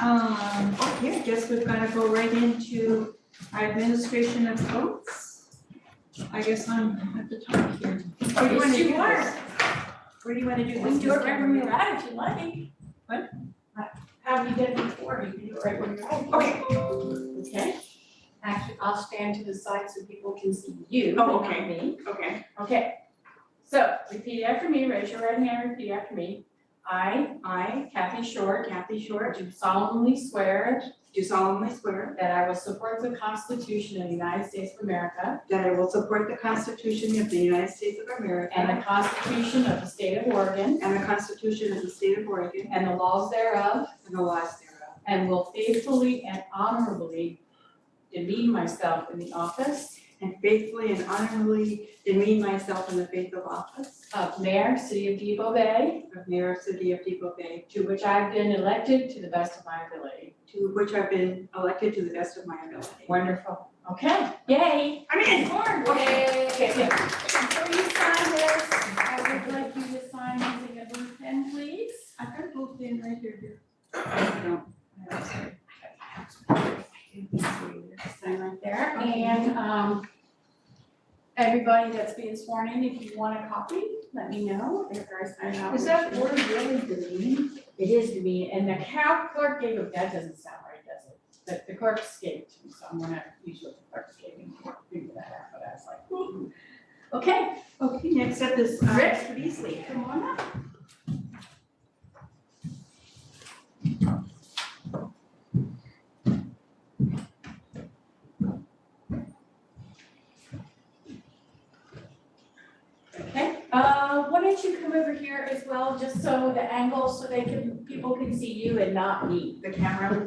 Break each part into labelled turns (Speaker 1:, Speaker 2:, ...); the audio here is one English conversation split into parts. Speaker 1: Um, okay, I guess we've gotta go right into our administration of votes. I guess I'm at the top here. Where do you wanna
Speaker 2: Yes,
Speaker 1: do
Speaker 2: you are.
Speaker 1: this? Where do you wanna do this?
Speaker 2: We can do it
Speaker 1: Mr.
Speaker 2: right where you're at if you like.
Speaker 1: What?
Speaker 2: Have you done it before? You can do it right where you're at.
Speaker 1: Okay,
Speaker 2: Okay. Actually, I'll stand to the side so people can see you,
Speaker 1: Oh,
Speaker 2: but not
Speaker 1: okay.
Speaker 2: me.
Speaker 1: okay.
Speaker 2: Okay. So repeat after me, raise your right hand, repeat after me. I, I, Kathy Short, Kathy Short, do solemnly swear
Speaker 1: Do solemnly swear
Speaker 2: that I will support the Constitution of the United States of America
Speaker 1: that I will support the Constitution of the United States of America
Speaker 2: and the Constitution of the State of Oregon
Speaker 1: and the Constitution of the State of Oregon
Speaker 2: and the laws thereof,
Speaker 1: and the laws thereof,
Speaker 2: and will faithfully and honorably demean myself in the office
Speaker 1: and faithfully and honorably demean myself in the faith of office
Speaker 2: of Mayor, City of Depot Bay,
Speaker 1: of Mayor of City of Depot Bay,
Speaker 2: to which I've been elected to the best of my ability.
Speaker 1: to which I've been elected to the best of my ability.
Speaker 2: Wonderful. Okay, yay.
Speaker 1: I'm in.
Speaker 2: Okay, okay. Before you sign this, I would like you to sign using a blue pen, please.
Speaker 1: I've got both in right here.
Speaker 2: Sign right there. And um, everybody that's being sworn in, if you want a copy, let me know after I sign off.
Speaker 3: Is that word really demeaning?
Speaker 2: It is to me, and the cow clerk gave him, that doesn't sound right, does it? But the clerk escaped, so I'm gonna use what the clerk gave me to figure that out, but I was like, ooh. Okay,
Speaker 1: Okay, next up is uh,
Speaker 2: Rick.
Speaker 1: Mr. Beasley.
Speaker 2: come on up. Okay, uh, why don't you come over here as well, just so the angle, so they can, people can see you and not me.
Speaker 1: The camera.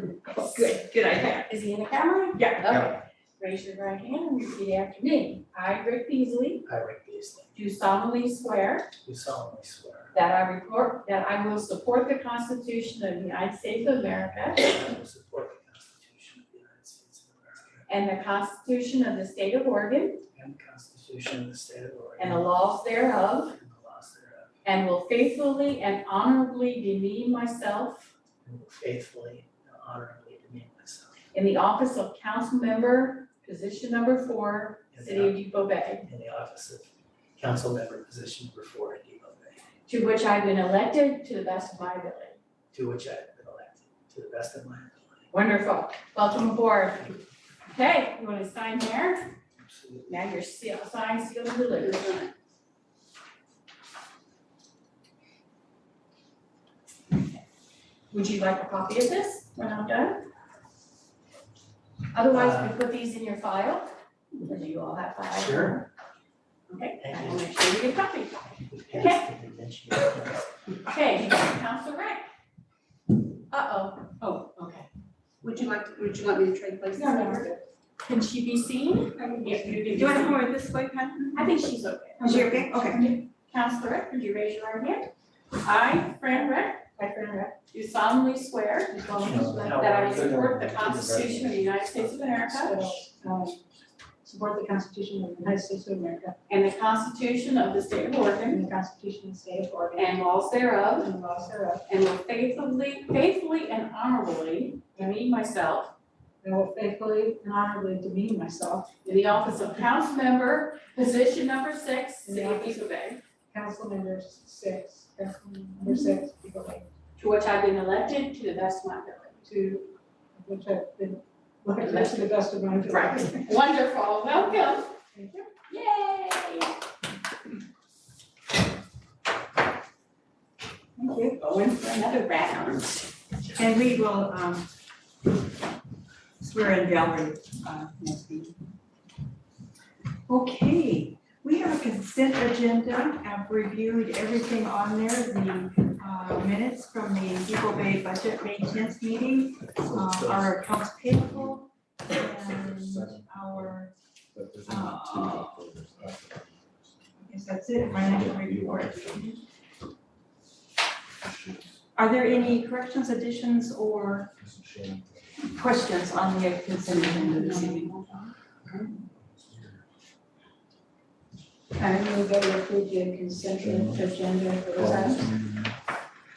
Speaker 2: Good.
Speaker 1: good
Speaker 2: Is he in the camera?
Speaker 1: Yeah.
Speaker 2: Okay. Raise your right hand and repeat after me. I, Rick Beasley,
Speaker 4: I, Rick Beasley,
Speaker 2: do solemnly swear
Speaker 4: do solemnly swear
Speaker 2: that I report, that I will support the Constitution of the United States of America
Speaker 4: that I will support the Constitution of the United States of America
Speaker 2: and the Constitution of the State of Oregon
Speaker 4: and the Constitution of the State of
Speaker 2: and the
Speaker 4: Oregon
Speaker 2: laws thereof,
Speaker 4: and the laws thereof,
Speaker 2: and will faithfully and honorably demean myself
Speaker 4: and will faithfully and honorably demean myself
Speaker 2: in the office of council member, position number four,
Speaker 4: in
Speaker 2: City of
Speaker 4: the,
Speaker 2: Depot Bay,
Speaker 4: in the office of council member position number four in Depot Bay,
Speaker 2: to which I've been elected to the best of my ability.
Speaker 4: to which I have been elected to the best of my ability.
Speaker 2: Wonderful, welcome aboard. Okay, you wanna sign here?
Speaker 4: Absolutely.
Speaker 2: Now you're seal, signed, sealed, and delivered. Would you like a copy of this when I'm done? Otherwise, we put these in your file, or do you all have files?
Speaker 4: Sure.
Speaker 2: Okay, I will
Speaker 4: Thank
Speaker 2: make sure you get a copy.
Speaker 4: you. Pass the convention.
Speaker 2: Okay, you got Council Rick. Uh-oh, oh, okay.
Speaker 3: Would you like, to- would you like me to trade places?
Speaker 2: Can she be seen?
Speaker 1: Do you want to come over this way, Pat?
Speaker 2: I think she's okay.
Speaker 1: Is she okay? Okay.
Speaker 2: Counselor Rick, would you raise your right hand? I, Fran Rick, I, Fran Rick, do solemnly swear do solemnly swear that I will support the Constitution of the United States of America
Speaker 3: Support the Constitution of the United States of America
Speaker 2: and the Constitution of the State of Oregon
Speaker 3: and the Constitution of the State of Oregon
Speaker 2: and laws thereof,
Speaker 3: and the laws thereof.
Speaker 2: and will faithfully, faithfully and honorably demean myself
Speaker 3: And will faithfully and honorably demean myself,
Speaker 2: in the office of council member, position number six, City of Eagle Bay,
Speaker 3: council member six, council member six, people like,
Speaker 2: to which I've been elected to the best of my ability.
Speaker 3: to which I've been, elected to the best of my ability.
Speaker 2: Right. Wonderful, welcome. Yay.
Speaker 1: Thank you.
Speaker 2: Going for another round.
Speaker 1: And we will um, swear in Valerie uh, next meeting. Okay, we have a consent agenda. I've reviewed everything on there, the uh, minutes from the Depot Bay Budget Maintenance Meeting, uh, our accounts payable, and our, uh, I guess that's it, financial report. Are there any corrections, additions, or questions on the consent agenda this evening?
Speaker 3: I move that we approve the consent agenda for this item.